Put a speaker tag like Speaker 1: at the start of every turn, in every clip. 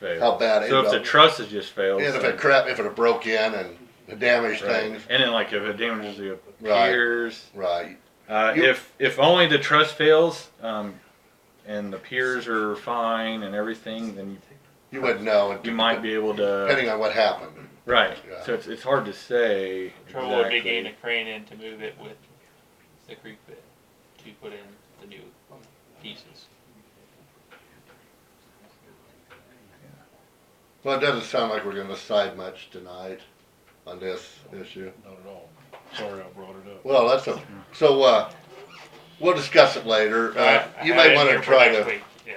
Speaker 1: failed.
Speaker 2: how bad it
Speaker 1: So if
Speaker 2: ended
Speaker 1: the
Speaker 2: up.
Speaker 1: truss has just failed,
Speaker 2: And if
Speaker 1: then-
Speaker 2: it crap, if it had broke in and it damaged
Speaker 1: right.
Speaker 2: things,
Speaker 1: and then like if it damages the
Speaker 2: Right.
Speaker 1: piers,
Speaker 2: right?
Speaker 1: uh,
Speaker 2: You-
Speaker 1: if if only the truss fails, um, and the piers are fine and everything, then
Speaker 2: You wouldn't know.
Speaker 1: you might be able to
Speaker 2: depending on what happened.
Speaker 1: right.
Speaker 2: Yeah.
Speaker 1: So it's it's hard to say.
Speaker 3: Trouble would be
Speaker 1: exactly.
Speaker 3: getting a crane in to move it with the creek bit to put in the new pieces.
Speaker 2: Well, it doesn't sound like we're going to decide much tonight on this issue.
Speaker 4: Not at all. Sorry I brought it up.
Speaker 2: Well, that's a, so, uh, we'll discuss it later. Uh,
Speaker 3: But I
Speaker 2: you
Speaker 3: have
Speaker 2: may
Speaker 3: it
Speaker 2: want to
Speaker 3: here for
Speaker 2: try
Speaker 3: next
Speaker 2: to,
Speaker 3: week, Yeah.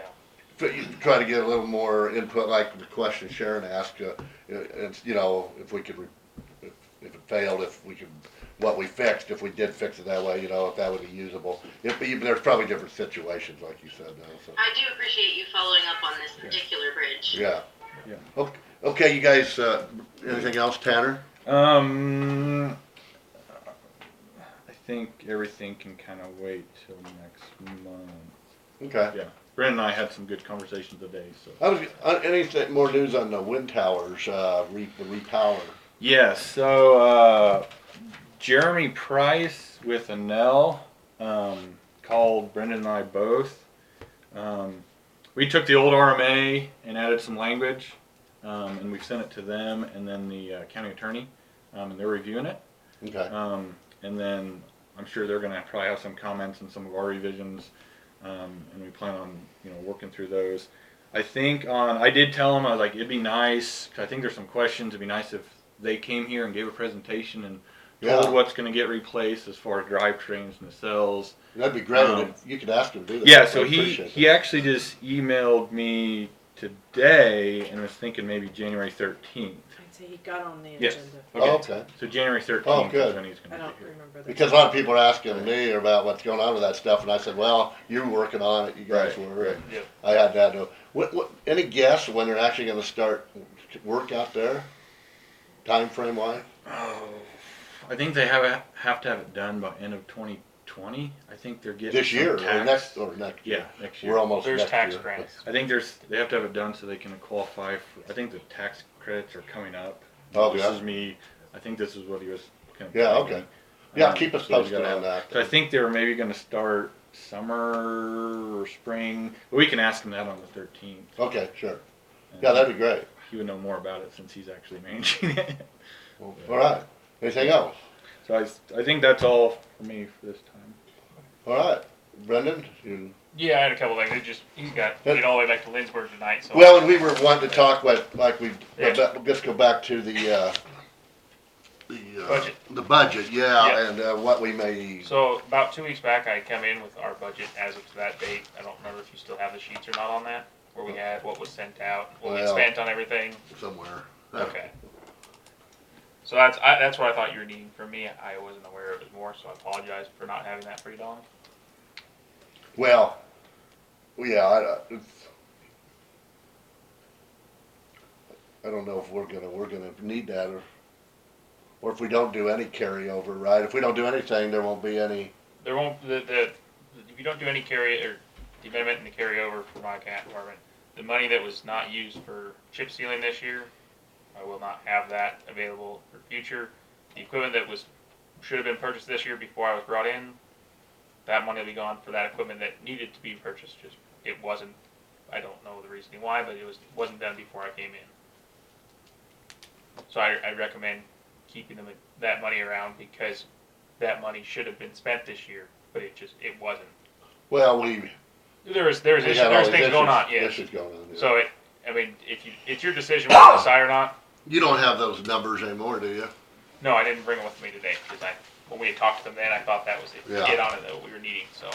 Speaker 2: but you try to get a little more input, like the question Sharon asked, uh, it's, you know, if we could, re- if if it failed, if we could, what we fixed, if we did fix it that way, you know, if that would be usable. If, there's probably different situations, like you said, though, so.
Speaker 5: I do appreciate you following up on this particular bridge.
Speaker 2: Yeah.
Speaker 1: Yeah.
Speaker 2: Ok- Okay, you guys, uh, anything else, Tanner?
Speaker 1: Um, I think everything can kind of wait till next month.
Speaker 2: Okay.
Speaker 1: Yeah, Brent and I had some good conversations today. So
Speaker 2: I was, uh, anything, more news on the wind towers, uh, re, the repower?
Speaker 1: yes, so uh, Jeremy Price with Anel um, called Brendan and I both. Um, we took the old RMA and added some language, um, and we sent it to them and then the uh, county attorney, um, and they're reviewing it.
Speaker 2: Okay.
Speaker 1: Um, and then I'm sure they're gonna probably have some comments on some of our revisions, um, and we plan on, you know, working through those. I think on, I did tell them, I was like, it'd be nice, 'cause I think there's some questions, it'd be nice if they came here and gave a presentation and
Speaker 2: Yeah.
Speaker 1: told what's gonna get replaced as far as drivetrains and the cells.
Speaker 2: That'd be great.
Speaker 1: Um,
Speaker 2: if you could ask him to do that.
Speaker 1: Yeah, so
Speaker 2: I'd
Speaker 1: he
Speaker 2: appreciate
Speaker 1: he
Speaker 2: that.
Speaker 1: actually just emailed me today and was thinking maybe January 13th.
Speaker 6: I'd say he got on the
Speaker 1: Yes.
Speaker 6: agenda.
Speaker 1: okay.
Speaker 2: Oh, okay.
Speaker 1: So January 13th
Speaker 2: good.
Speaker 1: is when he's
Speaker 6: I
Speaker 1: gonna
Speaker 6: don't
Speaker 1: be here.
Speaker 6: remember that.
Speaker 2: Because a lot of people are asking me about what's going on with that stuff, and I said, "Well, you're working on it. You guys
Speaker 1: Right,
Speaker 2: were."
Speaker 1: right.
Speaker 2: and
Speaker 3: Yep.
Speaker 2: I had that. to- What, what, any guess when they're actually going to start work out there? Time frame wise?
Speaker 1: Oh, I think they have a, have to have it done by end of 2020. I think they're getting
Speaker 2: This
Speaker 1: some
Speaker 2: year
Speaker 1: tax-
Speaker 2: or next or next?
Speaker 1: Yeah, next year.
Speaker 2: We're almost
Speaker 3: There's
Speaker 2: next
Speaker 3: tax
Speaker 2: year.
Speaker 3: grants.
Speaker 1: I think there's they have to have it done so they can qualify for. I think the tax credits are coming up.
Speaker 2: Oh,
Speaker 1: this
Speaker 2: yeah.
Speaker 1: is me. I think this is what he was. Kind of
Speaker 2: Yeah,
Speaker 1: telling
Speaker 2: okay.
Speaker 1: me.
Speaker 2: Yeah,
Speaker 1: Um,
Speaker 2: keep us
Speaker 1: so we
Speaker 2: posted
Speaker 1: gotta-
Speaker 2: on that.
Speaker 1: So I think they were maybe going to start summer or spring. But we can ask him that on the 13th.
Speaker 2: Okay, sure.
Speaker 1: And
Speaker 2: Yeah, that'd be great.
Speaker 1: he would know more about it since he's actually managing it.
Speaker 2: All right. Anything else?
Speaker 1: So I, s- I think that's all for me for this time.
Speaker 2: All right, Brendan. You,
Speaker 3: Yeah, I had a couple things. It just he's got to get all the way back to Lindsburg tonight. So
Speaker 2: well, and we were wanting to talk with like we but let's go back to the uh, the uh,
Speaker 3: Budget.
Speaker 2: The budget, yeah,
Speaker 3: Yeah.
Speaker 2: and uh, what we may.
Speaker 3: So about two weeks back, I come in with our budget as of to that date. I don't remember if you still have the sheets or not on that, where we had what was sent out, what we
Speaker 2: Well-
Speaker 3: spent on everything.
Speaker 2: somewhere.
Speaker 3: Okay. So that's I, that's what I thought you were needing from me. I wasn't aware it was more, so I apologize for not having that for you, Don.
Speaker 2: Well, yeah, I, uh, it's, I don't know if we're gonna we're gonna need that or or if we don't do any carryover, right? If we don't do anything, there won't be any.
Speaker 3: There won't the, the if you don't do any carry or the amendment and the carryover for my cat department, the money that was not used for chip sealing this year, I will not have that available for future. The equipment that was should have been purchased this year before I was brought in, that money will be gone for that equipment that needed to be purchased. Just it wasn't. I don't know the reasoning why, but it was wasn't done before I came in. So I, I recommend keeping them that money around because that money should have been spent this year, but it just it wasn't.
Speaker 2: Well, we
Speaker 3: There was there was
Speaker 2: we
Speaker 3: issues,
Speaker 2: had
Speaker 3: there
Speaker 2: all
Speaker 3: was
Speaker 2: these
Speaker 3: things
Speaker 2: issues,
Speaker 3: going on. Yeah.
Speaker 2: Issues going on. yeah.
Speaker 3: So it, I mean, if you it's your decision whether to decide or not.
Speaker 2: you don't have those numbers anymore, do you?
Speaker 3: No, I didn't bring it with me today because I when we had talked to them then I thought that was it.
Speaker 2: Yeah.
Speaker 3: Get on it that we were needing. So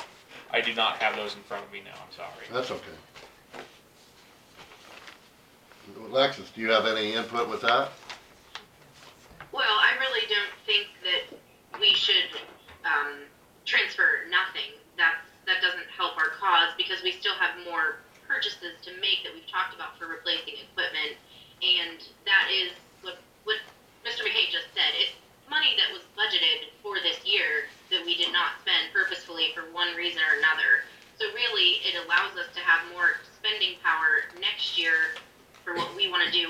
Speaker 3: I do not have those in front of me now. I'm sorry.
Speaker 2: That's okay. Alexis, do you have any input with that?
Speaker 5: Well, I really don't think that we should um, transfer nothing. That's, that doesn't help our cause because we still have more purchases to make that we've talked about for replacing equipment. And that is what, what Mr. McKay just said. It's money that was budgeted for this year that we did not spend purposefully for one reason or another. So really, it allows us to have more spending power next year for what want to do